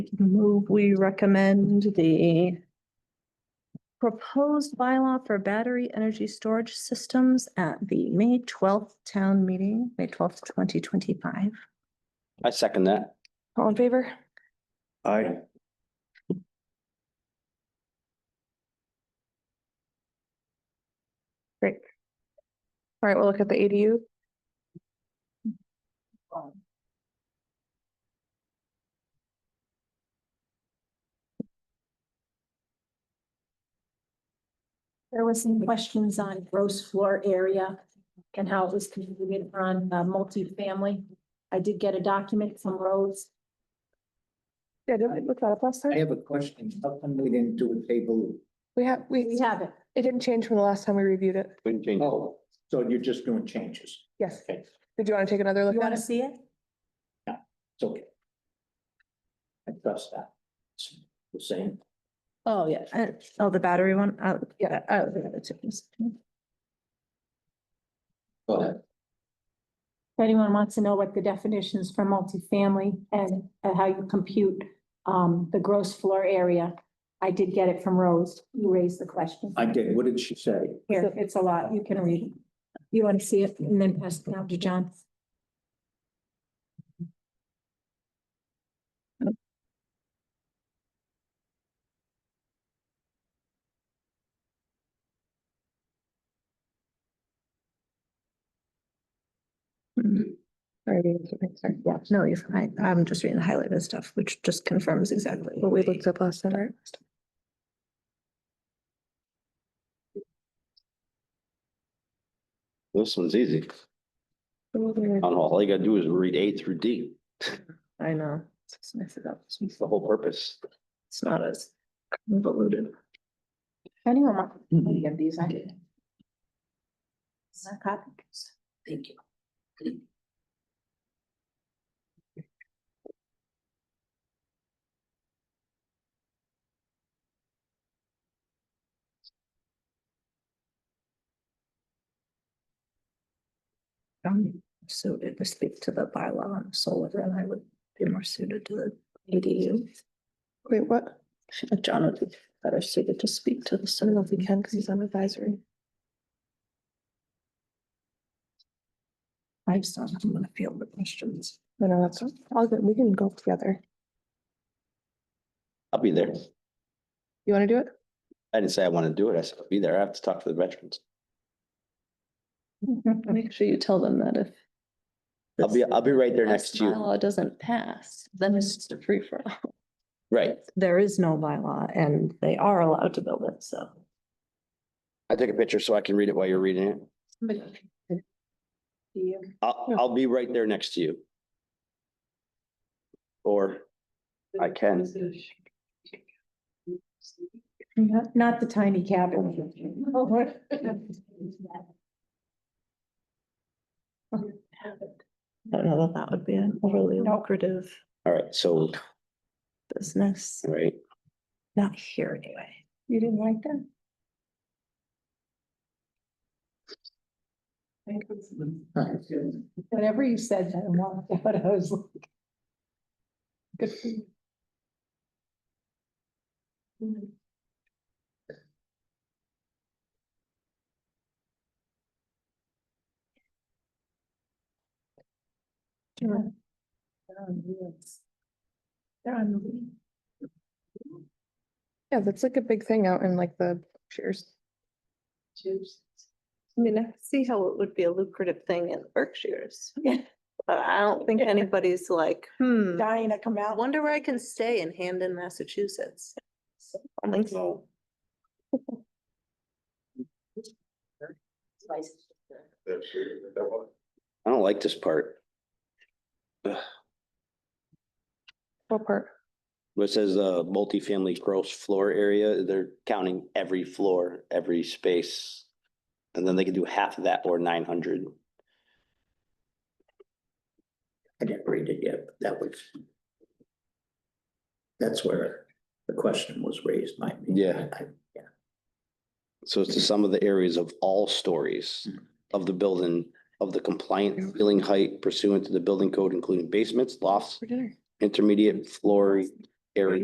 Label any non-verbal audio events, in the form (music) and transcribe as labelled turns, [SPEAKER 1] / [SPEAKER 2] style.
[SPEAKER 1] Move, we recommend the proposed bylaw for battery energy storage systems at the May twelfth town meeting, May twelfth, twenty twenty-five.
[SPEAKER 2] I second that.
[SPEAKER 1] All in favor?
[SPEAKER 2] Aye.
[SPEAKER 3] All right, we'll look at the ADU.
[SPEAKER 4] There was some questions on gross floor area and how it was configured on uh, multifamily. I did get a document from Rose.
[SPEAKER 3] Yeah, did we look that up last
[SPEAKER 5] I
[SPEAKER 3] time?
[SPEAKER 5] have a question. How come we didn't do a table?
[SPEAKER 3] We have,
[SPEAKER 4] We
[SPEAKER 3] we,
[SPEAKER 4] have it.
[SPEAKER 3] it didn't change from the last time we reviewed it.
[SPEAKER 2] Wouldn't change. it.
[SPEAKER 5] Oh, so you're just doing changes.
[SPEAKER 3] Yes.
[SPEAKER 5] Okay.
[SPEAKER 3] Did you want to take another
[SPEAKER 4] You
[SPEAKER 3] look at
[SPEAKER 4] want to
[SPEAKER 3] it?
[SPEAKER 4] see it?
[SPEAKER 5] It's okay. I trust that. It's the same.
[SPEAKER 1] Oh, yeah. Uh, Oh, the battery one, oh, yeah,
[SPEAKER 3] Yeah.
[SPEAKER 1] oh, the other two.
[SPEAKER 5] Go ahead.
[SPEAKER 4] If anyone wants to know what the definitions for multifamily and uh, how you compute um, the gross floor area, I did get it from Rose. You raised the question.
[SPEAKER 5] I did. What did she say?
[SPEAKER 4] Here, it's a lot. You can read it. You want to see it and then pass it down to John.
[SPEAKER 3] Sorry.
[SPEAKER 1] Yeah, no, you're fine. I'm just reading the highlighted stuff, which just confirms exactly
[SPEAKER 3] What
[SPEAKER 1] what
[SPEAKER 3] we
[SPEAKER 1] we
[SPEAKER 3] looked up last time, right?
[SPEAKER 2] This one's easy. I don't know. All you gotta do is read A through D.
[SPEAKER 1] I know. It's messed it up.
[SPEAKER 2] It's the whole purpose.
[SPEAKER 1] It's not as convoluted.
[SPEAKER 4] If Anyone want any of these? I did. Copies. Thank you.
[SPEAKER 1] Um, so it would speak to the bylaw on solar, and I would be more suited to the ADU.
[SPEAKER 3] Wait, what?
[SPEAKER 1] I feel like John would be better suited to speak to the
[SPEAKER 3] I don't know
[SPEAKER 1] solar.
[SPEAKER 3] if we can because he's on advisory.
[SPEAKER 1] I just don't, I'm gonna field the questions.
[SPEAKER 3] No, no, that's all good. We can go together.
[SPEAKER 2] I'll be there.
[SPEAKER 3] You want to do it?
[SPEAKER 2] I didn't say I want to do it. I said I'll be there. I have to talk to the veterans.
[SPEAKER 3] (laughs)
[SPEAKER 1] Make sure you tell them that if.
[SPEAKER 2] I'll be, I'll be right there next to you.
[SPEAKER 1] Law doesn't pass, then it's just a free for all.
[SPEAKER 2] Right.
[SPEAKER 1] There is no bylaw and they are allowed to build it, so.
[SPEAKER 2] I took a picture so I can read it while you're reading it.
[SPEAKER 4] You.
[SPEAKER 2] I'll, I'll be right there next to you. Or I can.
[SPEAKER 4] Not, not the tiny cabin.
[SPEAKER 1] I don't know that that would be an overly lucrative
[SPEAKER 2] All right. So, all
[SPEAKER 1] business,
[SPEAKER 2] right.
[SPEAKER 1] not here anyway.
[SPEAKER 4] You didn't like that? Whenever you said that, I walked out, I was like. Good for you. They're on wheels. They're on the wheel.
[SPEAKER 3] Yeah, that's like a big thing out in like the Cheers.
[SPEAKER 4] Cheers.
[SPEAKER 1] I mean, I could see how it would be a lucrative thing in Berkshire's.
[SPEAKER 4] Yeah.
[SPEAKER 1] But I don't think
[SPEAKER 4] Yeah.
[SPEAKER 1] anybody's like, hmm,
[SPEAKER 4] Dying to come
[SPEAKER 1] I
[SPEAKER 4] out.
[SPEAKER 1] wonder where I can stay in Hamden, Massachusetts. I don't think so.
[SPEAKER 2] I don't like this part.
[SPEAKER 3] What part?
[SPEAKER 2] Where it says the multifamily gross floor area, they're counting every floor, every space. And then they can do half of that or nine hundred.
[SPEAKER 5] I didn't read it yet, but that was. That's where the question was raised by me.
[SPEAKER 2] Yeah.
[SPEAKER 5] I-
[SPEAKER 2] So it's the sum of the areas of all stories of the building, of the compliant ceiling height pursuant to the building code, including basements, lofts,
[SPEAKER 3] For dinner.
[SPEAKER 2] intermediate floor area.